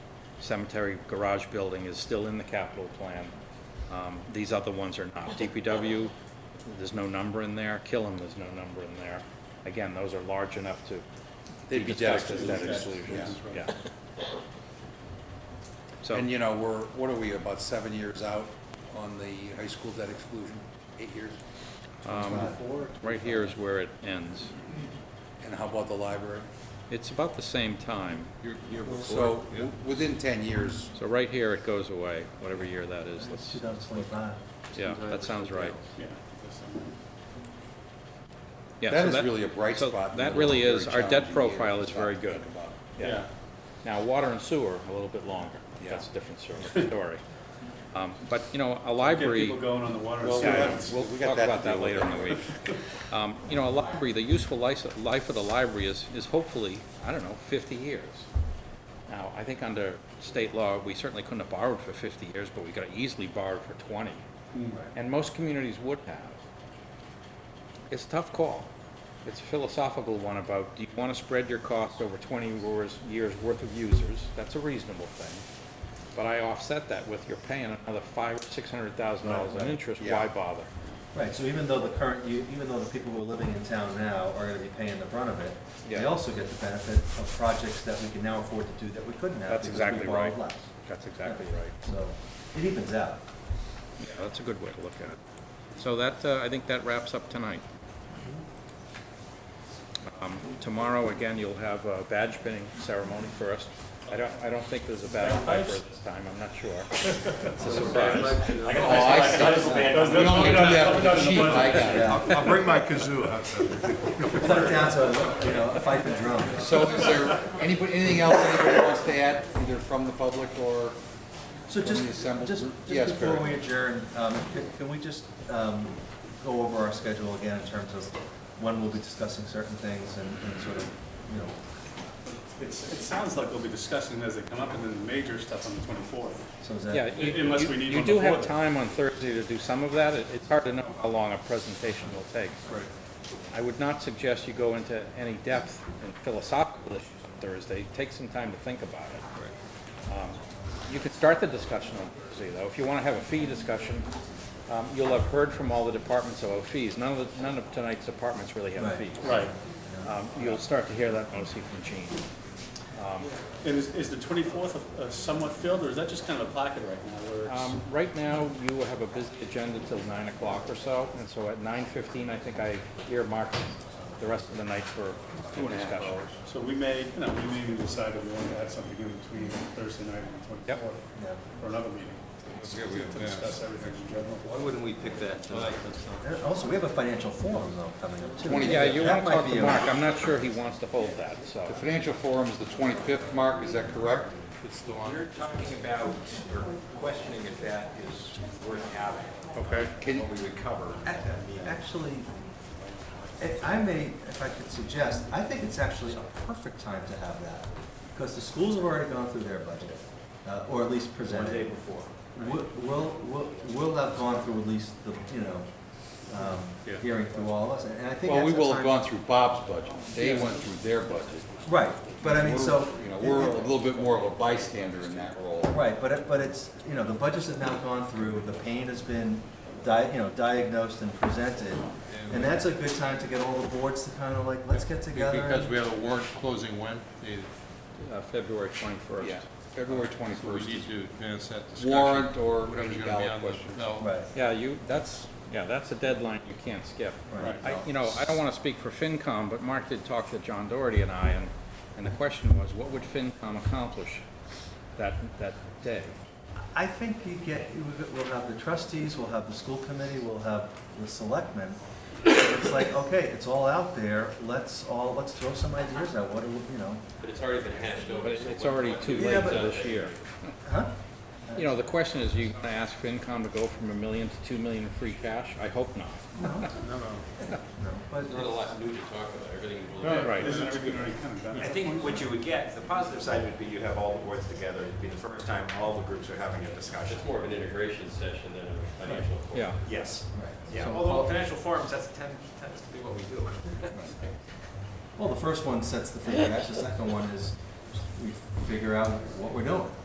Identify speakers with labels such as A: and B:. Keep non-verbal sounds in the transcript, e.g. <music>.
A: cemetery garage building is still in the capital plan. Um, These other ones are not. DPW, there's no number in there. Killam, there's no number in there. Again, those are large enough to
B: They'd be
A: be discussed as
B: dedicated.
A: debt exclusions, yeah. So,
B: And you know, we're, what are we, about seven years out on the high school debt exclusion? Eight years?
A: right here is where it ends.
B: And how about the library?
A: It's about the same time.
B: So, w- within ten years,
A: So right here, it goes away, whatever year that is. Let's,
C: 2025.
A: yeah, that sounds right. Yeah, so
B: that is really a bright
A: so
B: spot. in
A: That
B: a
A: really
B: very
A: is, our debt
B: challenging year,
A: profile is
B: stop
A: very
B: to
A: good.
B: think about it.
A: Yeah. Now, water and sewer, a little bit longer.
B: Yeah.
A: That's a different sort of story. <laughs> Um, But, you know, a library.
D: People going on the water.
B: Well, we
D: side.
B: have-
A: We'll
B: we got
A: talk
B: that to
A: about that
B: deal with.
A: later in
B: <laughs>
A: the week. Um, You know, a library, the useful life, life of the library is, is hopefully, I don't know, 50 years. Now, I think under state law, we certainly couldn't have borrowed for 50 years, but we could have easily borrowed for 20. And most communities would have. It's a tough call. It's a philosophical one about, do you want to spread your costs over 20 years- years' worth of users? That's a reasonable thing. But I offset that with you're paying another five, $600,000 in interest,
B: Yeah.
A: why bother?
C: Right, so even though the current, u- even though the people who are living in town now are gonna be paying the brunt of it, they
A: Yeah.
C: also get the benefit of projects that we can now afford to do that we couldn't have
A: That's
C: because we
A: exactly
C: borrowed
A: right.
C: less.
A: That's exactly right.
C: So it evens out.
A: Yeah, that's a good way to look at it. So that, uh, I think that wraps up tonight. Um, Tomorrow, again, you'll have a badge pinning ceremony for us. I don't, I don't think there's a badge piper this time, I'm not
D: <laughs>
A: sure. It's a surprise.
B: Oh, I see. We only do that for the chief, I got it.
C: Yeah.
E: I'll bring my kazoo out.
C: Cut it down to, you know, a fife and drum.
B: So is there anybody, anything else anybody wants to add, either from the public or?
C: So just,
B: Can we assemble
C: just,
B: group?
C: just
B: Yes,
C: before
B: Barry.
C: we adjourn, um, can, can we just, um, go over our schedule again in terms of when we'll be discussing certain things and, and sort of, you know,
D: It's, it sounds like we'll be discussing it as they come up, and then the major stuff on the twenty-fourth.
C: so is that?
A: Yeah, you-
D: Unless we need
A: you
D: one
A: do
D: before
A: have
D: then.
A: time on Thursday to do some of that. It- It's hard to know how long a presentation will take.
D: Right.
A: I would not suggest you go into any depth in philosophical issues on Thursday. Take some time to think about it. Um, You could start the discussion on Thursday, though. If you want to have a fee discussion, um, you'll have heard from all the departments about fees. None of, the- none of tonight's departments really have
C: Right.
A: fees.
D: Right.
A: Um, You'll start to hear that mostly from Gene.
D: And is, is the twenty-fourth somewhat filled, or is that just kind of a placket right now, where it's,
A: Um, Right now, you have a busy agenda till nine o'clock or so, and so at nine fifteen, I think I earmarked the rest of the night for discussion.
D: so we may, you know, we may even decide if we want to add something in between Thursday night and the
A: Yep.
D: twenty-fourth,
C: Yeah.
D: or another meeting, to discuss everything in general.
C: And Also, we have a financial forum though coming up too.
A: Yeah, you want to
C: That might
A: talk
C: be
A: to
C: a-
A: Mark, I'm not sure he
C: <laughs>
A: wants to hold that, so.
B: The financial forum is the 25th, Mark, is that correct? It's the one.
F: You're talking about, or questioning if that is worth having,
A: Okay.
B: Can,
F: what we would cover.
C: A- Actually, if I may, if I could suggest, I think it's actually a perfect time to have that, because the schools have already gone through their budget, uh, or at least presented. One day before. We'll, we'll, we'll have gone through at least the, you know, um,
A: Yeah.
C: hearing through all of us, and and I think
B: well, we
C: that's a
B: will have
C: time-
B: gone through Bob's budget. They went through their budget.
C: Right, but I mean, so.
B: You know, we're a little bit more of a bystander in that role.
C: Right, but it, but it's, you know, the budgets have now gone through, the pain has been di, you know, diagnosed and presented. And that's a good time to get all the boards to kind of like, let's get together.
G: Because we have a warrant closing when? They-
C: Uh,
A: February twenty-first.
B: Yeah, February
G: So we
B: 21st.
G: need to advance that discussion.
B: Warrant or
G: Whatever's
B: any
G: gonna be
B: ballot
G: on the
B: question.
G: ballot.
C: Right,
A: Yeah, you, that's, yeah, that's a deadline you can't skip.
C: right.
A: I, you know, I don't want to speak for FinCom, but Mark did talk to John Doherty and I, and, and the question was, what would FinCom accomplish that, that day?
C: I think you get, you would- we'll have the trustees, we'll have the school committee, we'll have the selectmen. It's like, okay, it's all out there, let's all, let's throw some ideas out, what do, we- you know,
H: But it's already been hashed over.
A: But it- it's already too
C: Yeah,
A: late
C: but-
A: this year.
C: huh?
A: You know, the question is, you going to ask FinCom to go from a million to two million in free cash? I hope not.
C: No, no, but.
H: There's not a lot new to talk about, everything was
A: Right.
D: Isn't everything already kind of done?
F: I think what you would get, the positive side would be you have all the boards together, it'd be the first time all the groups are having a discussion.
H: It's more of an integration session than a financial. forum.
A: Yeah.
F: Yes.
C: Right.
F: Yeah, although financial forums, that's ten, tends to be what we do.
C: Well, the first one sets the figure, that's the second one is we figure out what we're doing.